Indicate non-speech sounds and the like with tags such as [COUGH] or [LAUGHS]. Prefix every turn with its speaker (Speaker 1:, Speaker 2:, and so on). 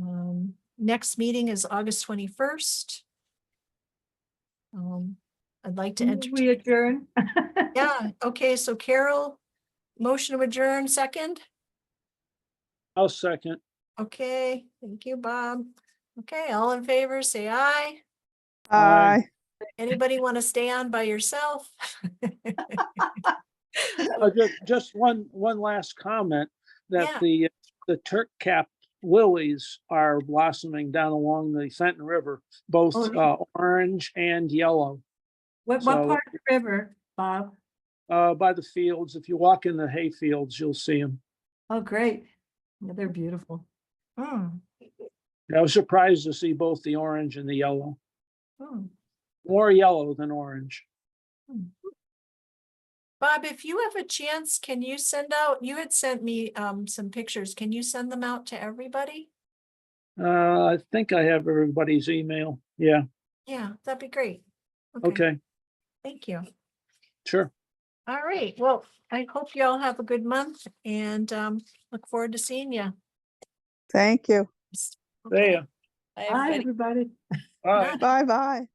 Speaker 1: Um, next meeting is August twenty-first. Um, I'd like to enter,
Speaker 2: We adjourn. [LAUGHS]
Speaker 1: yeah, okay, so Carol, motion to adjourn, second?
Speaker 3: I'll second.
Speaker 1: Okay, thank you, Bob. Okay, all in favor, say aye.
Speaker 3: Aye.
Speaker 4: Aye.
Speaker 1: Anybody want to stay on by yourself?
Speaker 3: Uh, ju- Just one, one last comment
Speaker 1: Yeah.
Speaker 3: that the, the Turk cap lilies are blossoming down along the Fenton River, both
Speaker 2: Oh, no.
Speaker 3: uh, orange and yellow,
Speaker 2: What, what
Speaker 3: So-
Speaker 2: part of the river, Bob?
Speaker 3: uh, by the fields. If you walk in the hay fields, you'll see them.
Speaker 2: Oh, great. Yeah, They're beautiful.
Speaker 1: Hmm,
Speaker 3: I was surprised to see both the orange and the yellow,
Speaker 1: hmm.
Speaker 3: more yellow than orange.
Speaker 1: Bob, if you have a chance, can you send out, you had sent me um some pictures. Can you send them out to everybody?
Speaker 3: Uh, I think I have everybody's email. Yeah,
Speaker 1: Yeah, that'd be great.
Speaker 3: okay,
Speaker 1: Thank you.
Speaker 3: sure.
Speaker 1: All right, well, I hope you all have a good month and um look forward to seeing you.
Speaker 4: Thank you.
Speaker 3: There.
Speaker 2: Bye, everybody.
Speaker 3: All right.
Speaker 4: Bye bye.
Speaker 1: Mm-hmm.